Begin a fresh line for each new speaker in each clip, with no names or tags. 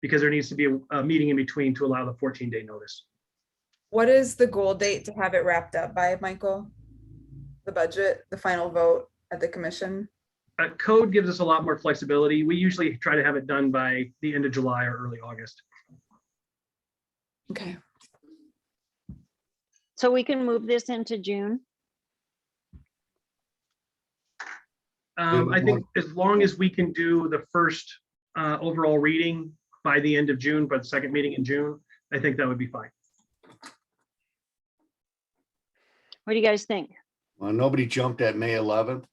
because there needs to be a- a meeting in between to allow the 14-day notice.
What is the goal date to have it wrapped up by, Michael? The budget, the final vote at the commission?
Uh, Code gives us a lot more flexibility. We usually try to have it done by the end of July or early August.
Okay.
So we can move this into June.
Um,
Yeah,
I think as long as we can do the first uh, overall reading by the end of June, by the second meeting in June, I think that would be fine.
What do you guys think?
Well, nobody jumped at May eleventh.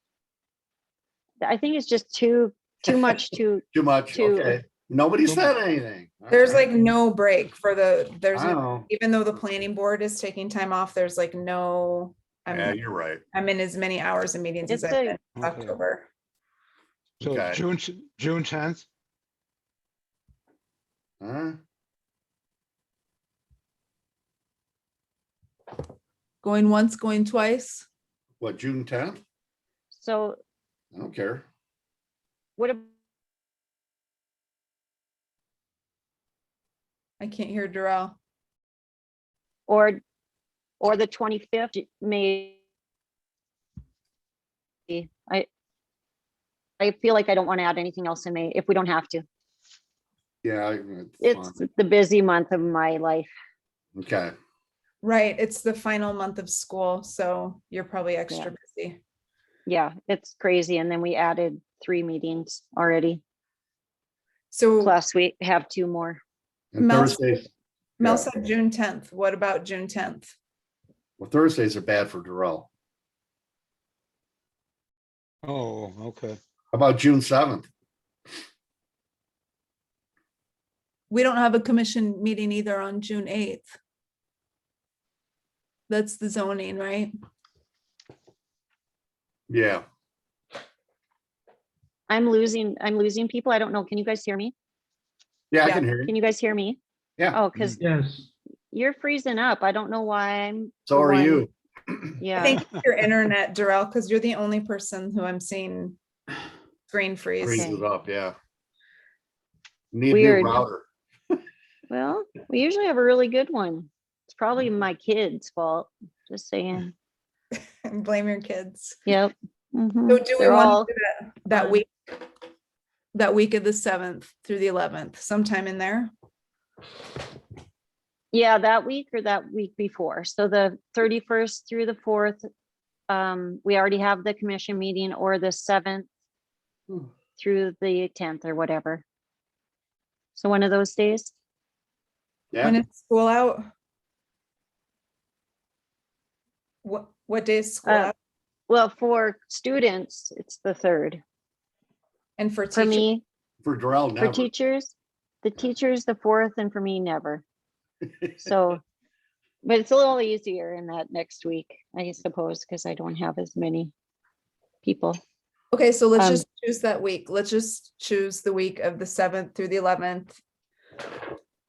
I think it's just too, too much to,
Too much.
Too-
Okay. Nobody said anything. All
There's
right.
like no break for the, there's,
I
no-
know.
even though the planning board is taking time off, there's like no,
Yeah,
I'm,
you're right.
I'm in as many hours of meetings as
It's
I've
a-
been since
Okay.
October.
So
Okay.
June, s- June tenth,
Huh?
Going once, going twice?
What, June tenth?
so
I don't care.
what, ab-
I can't hear Darrell.
or, or the twenty-fifth, May. I, I feel like I don't want to add anything else in May if we don't have to.
Yeah. I-
It's
fine.
the busy month of my life.
Okay.
Right, it's the final month of school, so you're probably extra busy.
Yeah, it's crazy. And then we added three meetings already.
So
Plus we have two more.
And
Mel-
Thursdays,
Mel
yeah.
said June tenth. What about June tenth?
well, Thursdays are bad for Darrell.
oh, okay.
How about June seventh?
We don't have a commission meeting either on June eighth. That's the zoning, right?
Yeah.
I'm losing, I'm losing people. I don't know. Can you guys hear me?
Yeah, I
Yeah.
can hear you.
Can you guys hear me?
Yeah.
Oh, because
Yes.
you're freezing up. I don't know why I'm,
So are
one-
you.
I
yeah,
think it's your internet, Darrell, because you're the only person who I'm seeing screen freeze.
Freezes up, yeah. Need a
Weird.
new router.
well, we usually have a really good one. It's probably
Mm-hmm.
my kid's fault, just saying.
Blame your kids.
Yep. mhm.
So do we
They're all-
want to do that- that
fine.
week? That week of the seventh through the eleventh, sometime in there?
Yeah, that week or that week before. So the thirty-first through the fourth, um, we already have the commission meeting or the seventh
Hmm.
through the tenth or whatever. So one of those days,
When
Yeah,
is school out? What, what day is school
Uh,
out?
well, for students, it's the third.
And for
For
teachers,
me,
for Darrell
for
never.
teachers, the teachers, the fourth, and for me, never. So, but it's a little easier in that next week, I suppose, because I don't have as many people.
okay, so let's
um,
just choose that week. Let's just choose the week of the seventh through the eleventh.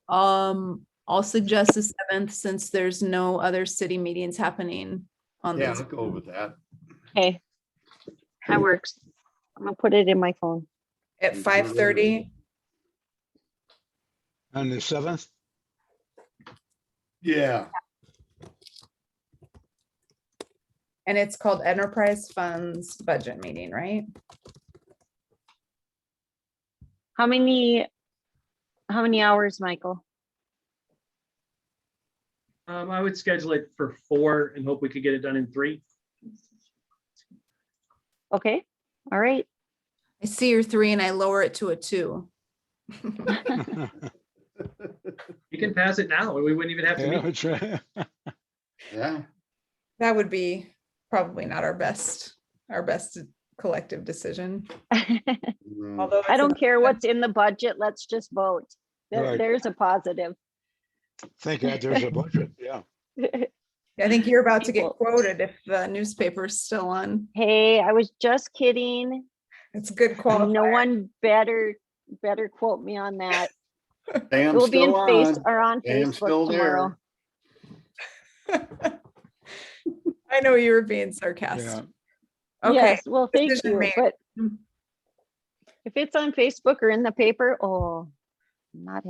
Um, I'll suggest the seventh since there's no other city meetings happening on
Yeah,
this.
I'll go with that.
Okay. That works. I'm gonna put it in my phone.
At five thirty,
And the seventh,
Yeah,
and it's called Enterprise Funds Budget Meeting, right?
How many, how many hours, Michael?
Um, I would schedule it for four and hope we could get it done in three.
Okay, all right.
I see your three and I lower it to a two.
yeah,
You can pass it now and we wouldn't even have to meet.
that's right.
yeah.
That would be probably not our best, our best collective decision,
I
Mm.
although. it's
don't
a-
care what's in the budget, let's just vote. There-
Right.
There's a positive.
Thank God there's a budget, yeah.
I think you're about to get
people.
quoted if the newspaper's still on.
Hey, I was just kidding.
It's good quality.
No one better, better quote me on that.
Sam's
We'll be in
still
face
on.
or on
Sam's still
Facebook tomorrow.
there.
I know you were being
Yeah.
sarcastic. Okay,
Yes, well, thank
decision
you,
made.
but
Mm.
if it's on Facebook or in the paper, oh, I'm not